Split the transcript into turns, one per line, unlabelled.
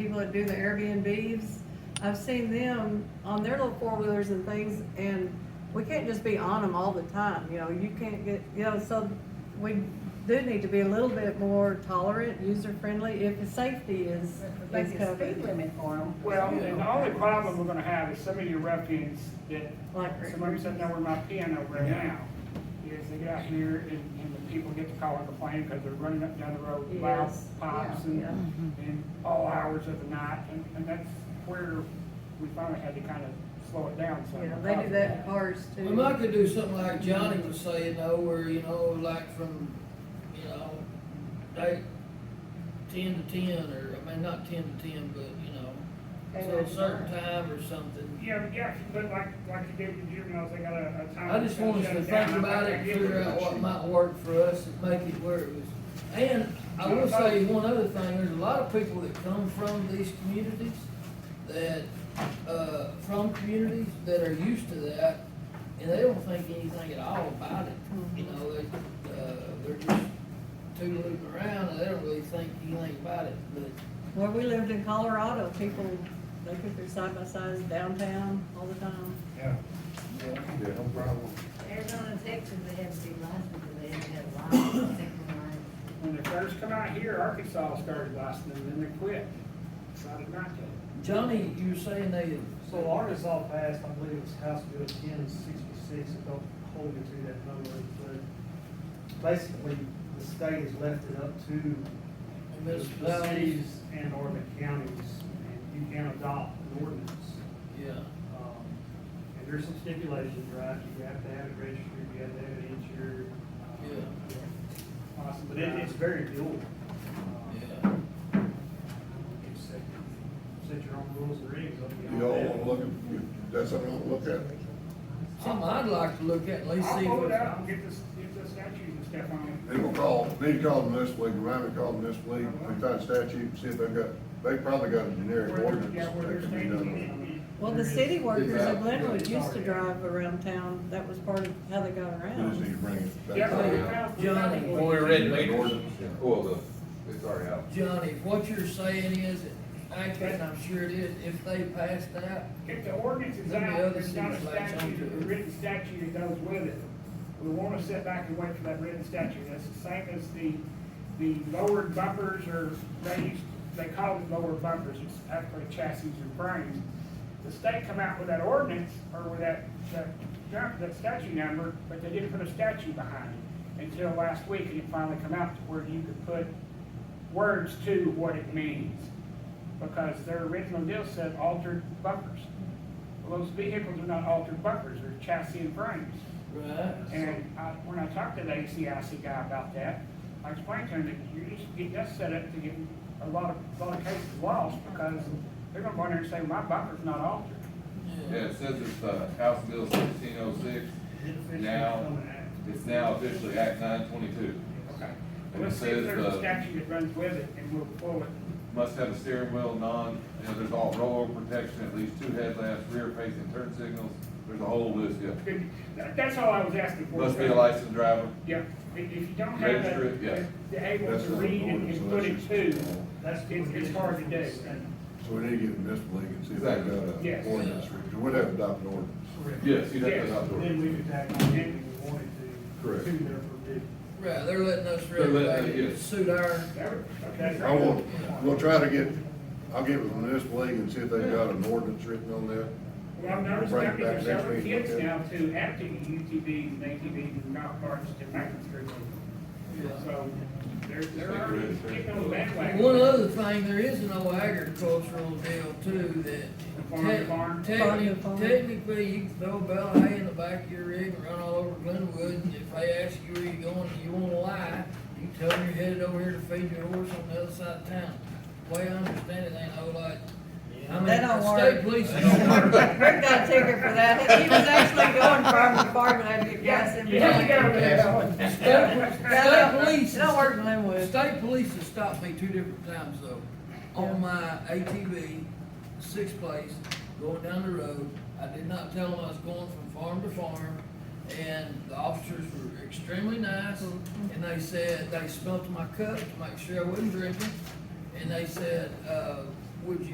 people that do the Airbnbs, I've seen them on their little four wheelers and things, and we can't just be on them all the time, you know, you can't get, you know, so we do need to be a little bit more tolerant, user friendly, if the safety is,
Like
is
a speed
covered.
limit for them.
Well, and the only problem we're gonna have is some of your ruffians that,
Like-
somebody said, no, where my piano right now, is they get out here and, and the people get to call and complain because they're running up down the road, loud
Yes,
pops
yeah,
and,
yeah.
Mm-hmm.
and all hours of the night, and, and that's where we finally had to kind of slow it down some.
Yeah, they do that in cars too.
We might could do something like Johnny was saying though, where, you know, like from, you know, eight, ten to ten, or, I mean, not ten to ten, but, you know, so a certain time or something.
Yeah, yeah, but like, like you did with juveniles, they got a, a time.
I just want us to
shut down.
think about it, and figure out what might work for us and make it where it was. And I will say one other thing, there's a lot of people that come from these communities that, uh, from communities that are used to that, and they don't think anything at all about it. You know, they, uh, they're just tootling around and they don't really think anything about it, but
Where we lived in Colorado, people, they put their side by sides downtown all the time.
Yeah.
Yeah, no problem.
Arizona, Texas, they have to be licensed, but they have to have a license, second line.
When they first come out here, Arkansas started licensing, them, then they quit, decided not to.
Johnny, you were saying they.
So Arkansas passed, I believe it was House Bill ten sixty-six, I don't hold me to that number, but basically, the state has left it up to the
Municipalities,
cities and or the counties, and you can adopt an ordinance.
yeah.
Um, And there's some stipulations, right, you have to have it registered, you have to have it insured. um, Awesome, but it, it's very dual. Uh,
Yeah.
Set, set your own rules and regs up.
You all wanna look at, that's something I'll look at.
Something I'd like to look at, at least see
I'll pull
what.
it out and get this, get the statues and stuff on
They gonna call, need to call them this week, remind me to call them this week, we find statute, see if they've got, they probably got a
it.
generic
Where-
ordinance
yeah, where
that
there's
can be done.
names.
Well, the city workers
Exactly.
of Glenwood used to drive around town, that was part of how they got
We just need
around.
to bring it back.
Yeah, we
Yeah.
found- we
Johnny.
found
When
one.
we read meters,
Yeah.
well, Oh, the, it's already out.
Johnny, what you're saying is, accurate, and I'm sure it is, if they passed that,
If the ordinance is
Then the
out,
other
there's not a
cities latch onto
statute,
it.
a written statute that goes with it. We wanna sit back and wait for that written statute. That's the same as the, the lowered bumpers or raised, they call it lowered bumpers, it's actually chassis and frames. The state come out with that ordinance or with that, that, that statute number, but they didn't put a statute behind it until last week and it finally come out to where you could put words to what it means. Because their original deal said altered bumpers. Well, those vehicles are not altered bumpers, they're chassis and frames.
right?
And I, when I talked to the ACIC guy about that, I explained to him that you just get that set up to get a lot of, a lot of cases lost because they're gonna go in there and say, my bumper's not altered.
Yeah, it says it's, uh, House Bill sixteen oh six, now, it's now officially Act nine twenty-two.
Okay.
And it
Let's see if
says,
there's a
uh,
statute that runs with it and move forward.
must have a steering wheel, non, you know, there's all rollover protection, at least two headlamps, rear facing turn signals, there's a whole list, yeah.
That- That's all I was asking for.
Must be a licensed driver,
Yeah, if if you don't have
Register it, yeah.
the, the able
That's
to
not an
read and-
ordinance,
and put it
that's
to,
just-
That's
it's, it's hard to do.
So we need to get in this league and see if they've got an
Yes.
ordinance, because we'd have to adopt an ordinance.
yes, you'd have to
Yes.
adopt the ordinance.
Then we could tack on anything we wanted to.
Correct.
To their forbid.
Right, they're letting us
They're letting-
regulate it,
yes.
suit our,
That would- okay.
I will, we'll try to get, I'll get with the municipal league and see if they've got an ordinance written on that.
Well, I've noticed
Bring it
now
back
there's
next
several
week.
kids now too, after the UTVs and ATVs and golf carts and mountain scooter.
Yeah.
So they're, they're
Think
already
we're ready.
getting on the bandwagon.
One other thing, there is an old agricultural deal too that.
Farm to farm?
te-
Farm to farm.
Technically, you can throw a bale of hay in the back of your rig and run all over Glenwood, and if they ask you where you going, and you wanna lie, you tell them you're headed over here to feed your horse on the other side of town. The Way I understand it, ain't no like, I mean,
That don't
the state
work.
police is.
Rick got a ticket for that, he was actually going farm to farm and had to get gas
Yeah,
in.
you have to go with that one.
State police.
It don't work in Glenwood.
State police have stopped me two different times though, on my ATV, six place, going down the road. I did not tell them I was going from farm to farm, and the officers were extremely nice. And they said, they smelt my cup to make sure I wasn't drinking, and they said, uh, would you